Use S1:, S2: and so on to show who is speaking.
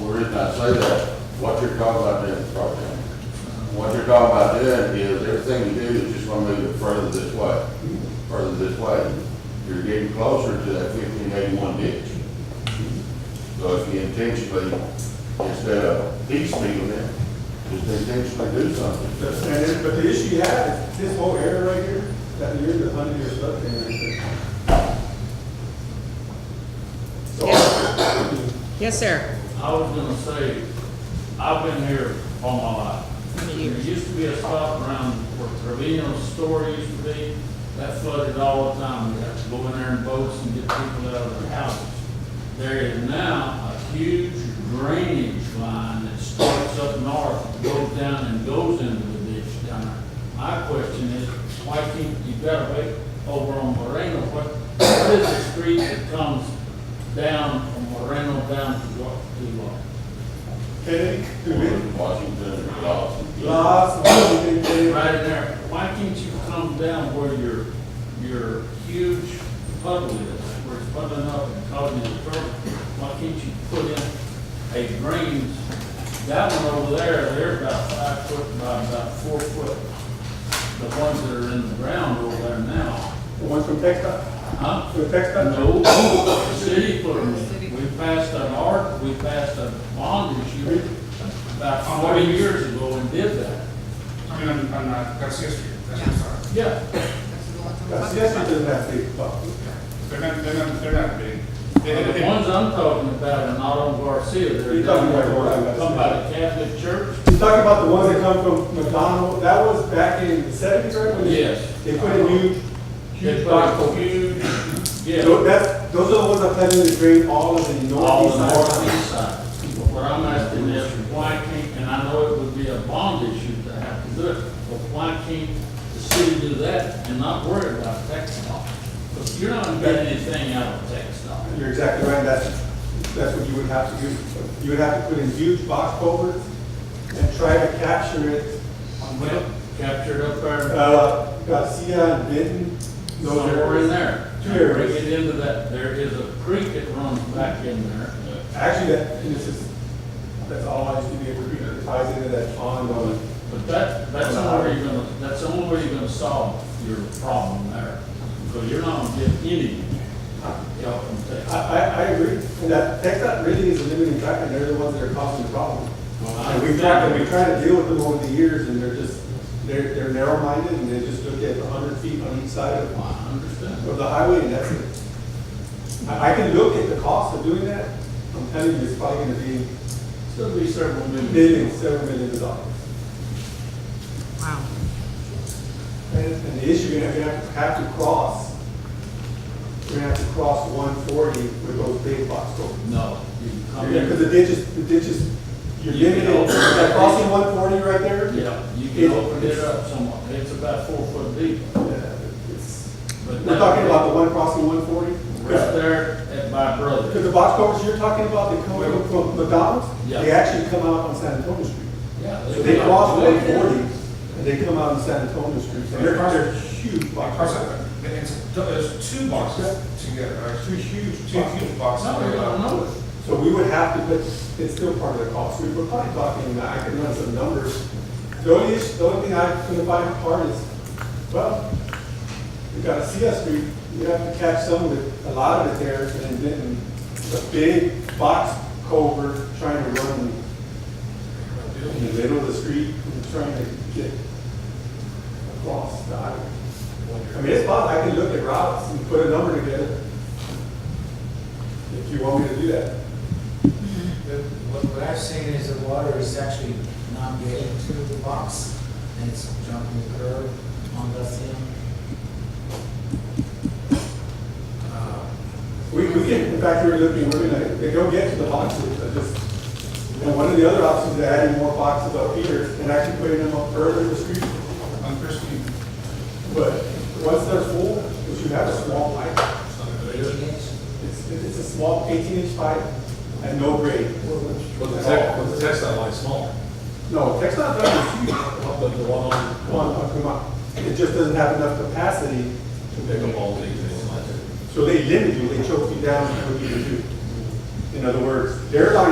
S1: not say that. What you're talking about doing is property. What you're talking about doing is everything you do is just gonna move it further this way, further this way. You're getting closer to that fifteen eighty-one ditch. So if you intentionally, instead of piecemealing it, just intentionally do something.
S2: But- And it, but the issue you have is this whole area right here, that you're the hundred year flood plain right there. So,
S3: Yes, sir.
S4: I was gonna say, I've been here all my life.
S3: Many
S4: There
S3: years.
S4: used to be a spot around where Trevino's store used to be, that flooded all the time. We had to go in there in boats and get people out of their houses. There is now a huge drainage line that starts up north, goes down and goes into the ditch down there. My question is, why can't you got a big over on Moreno, what, what is the street that comes down from Moreno down to, Wa- to, uh,
S2: Kennedy, Dubin,
S1: Washington, Lawson.
S2: Laws, everything, Kennedy.
S4: right in there, why can't you come down where your, your huge puddle is, where it's puddling up and causing you trouble? Why can't you put in a drains, that one over there, they're about five foot by about four foot. The ones that are in the ground over there now,
S2: the one from Texas,
S4: huh?
S2: from Texas.
S4: No, the city put 'em in. we passed an art, we passed a bond issue about forty years ago and did that.
S5: I mean, on, on uh, Garcia Street, that's what I'm sorry.
S4: Yeah,
S2: That's, yes, it doesn't have big problems.
S5: They're not, they're not, they're not big. They-
S4: Well,
S5: they-
S4: The ones I'm talking about are not on Garcia, they're
S2: You're talking
S4: down
S2: about where I'm
S4: there,
S2: at.
S4: come by the Catholic Church.
S2: You talking about the ones that come from McDonald, that was back in the seventies, right? when they-
S4: Yes.
S2: They put a new,
S4: It's
S2: huge
S4: like
S2: box
S4: a
S2: over.
S4: huge,
S2: Tho-
S4: yeah,
S2: That's, those are the ones that plan to drain all of the
S4: all
S2: northeast
S4: the
S2: side.
S4: northeast side. What I'm asking is, why can't, and I know it would be a bond issue to have to do it, but why can't the city do that and not worry about tax law? Because you're not getting anything out of tax law.
S2: You're exactly right, that's, that's what you would have to do. You would have to put in huge box culverts and try to capture it.
S4: Well, captured up there,
S2: Uh, Garcia and Benton, those
S4: somewhere in
S2: are,
S4: there.
S2: Two areas.
S4: Bring it into that, there is a creek that runs back in there.
S2: actually, that, this is, that's all I used to be able to read, it ties into that pond on.
S4: But that, that's the only way you're gonna, that's the only way you're gonna solve your problem there, because you're not gonna get any help from
S2: I,
S4: Texas.
S2: I, I agree, and that, TechDOT really is a limiting factor, they're the ones that are causing the problem.
S4: Well, I
S2: And we've tried, and we tried to deal with them over the years, and they're just, they're, they're narrow-minded, and they just look at a hundred feet on each side of,
S4: I understand.
S2: of the highway, and that's it. I, I can look at the cost of doing that, I'm telling you, it's probably gonna be
S4: Still be several million.
S2: millions, several millions of dollars.
S3: Wow.
S2: And, and the issue, you're gonna have to, have to cross, you're gonna have to cross one forty with those big box roads.
S4: No, you can come
S2: Yeah, because the
S4: in.
S2: ditch is, the ditch is, you're
S4: You can
S2: limited,
S4: open it.
S2: that crossing one forty right there.
S4: Yeah, you can open it up somewhat, it's about four foot deep.
S2: Yeah, it's-
S4: but
S2: We're
S4: that-
S2: talking about the one crossing one forty?
S4: Right there at
S2: Because
S4: my brother.
S2: the box covers you're talking about, they come in from McDonald's,
S4: Yeah.
S2: they actually come out on San Antonio Street.
S4: Yeah,
S2: So they cross one forty, and they come out on San Antonio Street, and they're, they're huge
S5: Like,
S2: box
S5: cross
S2: covers.
S5: out, but it's, there's two boxes together, right? Two huge, two huge boxes.
S4: No, I don't know it.
S2: So we would have to, but it's still part of the cost, we were probably talking, I could run some numbers. The only issue, the only thing I couldn't find hard is, well, we got a CS Street, you have to catch some of it, a lot of it there, and then a big box culvert trying to run in the middle of the street, and trying to get across the highway. I mean, it's possible, I can look at routes and put a number together, if you want me to do that.
S6: The- What, what I've seen is the water is actually not getting to the box, and it's jumping the curb on the scene. Uh,
S2: We, we can, in fact, we were looking, we're gonna, they don't get to the boxes, I just, and one of the other options is adding more boxes up here and actually putting them up further in the street.
S5: On First Street.
S2: But once they're full, if you have a small pipe,
S6: Eighteen inch,
S2: it's, it's a small eighteen inch pipe and no grade.
S7: But the tech, but the textile line's smaller.
S2: No, Texas doesn't huge,
S7: But the one on,
S2: one, uh, come on, it just doesn't have enough capacity
S7: to pick up all the, it's not.
S2: So they limit you, they choke you down, what you can do. In other words, they're not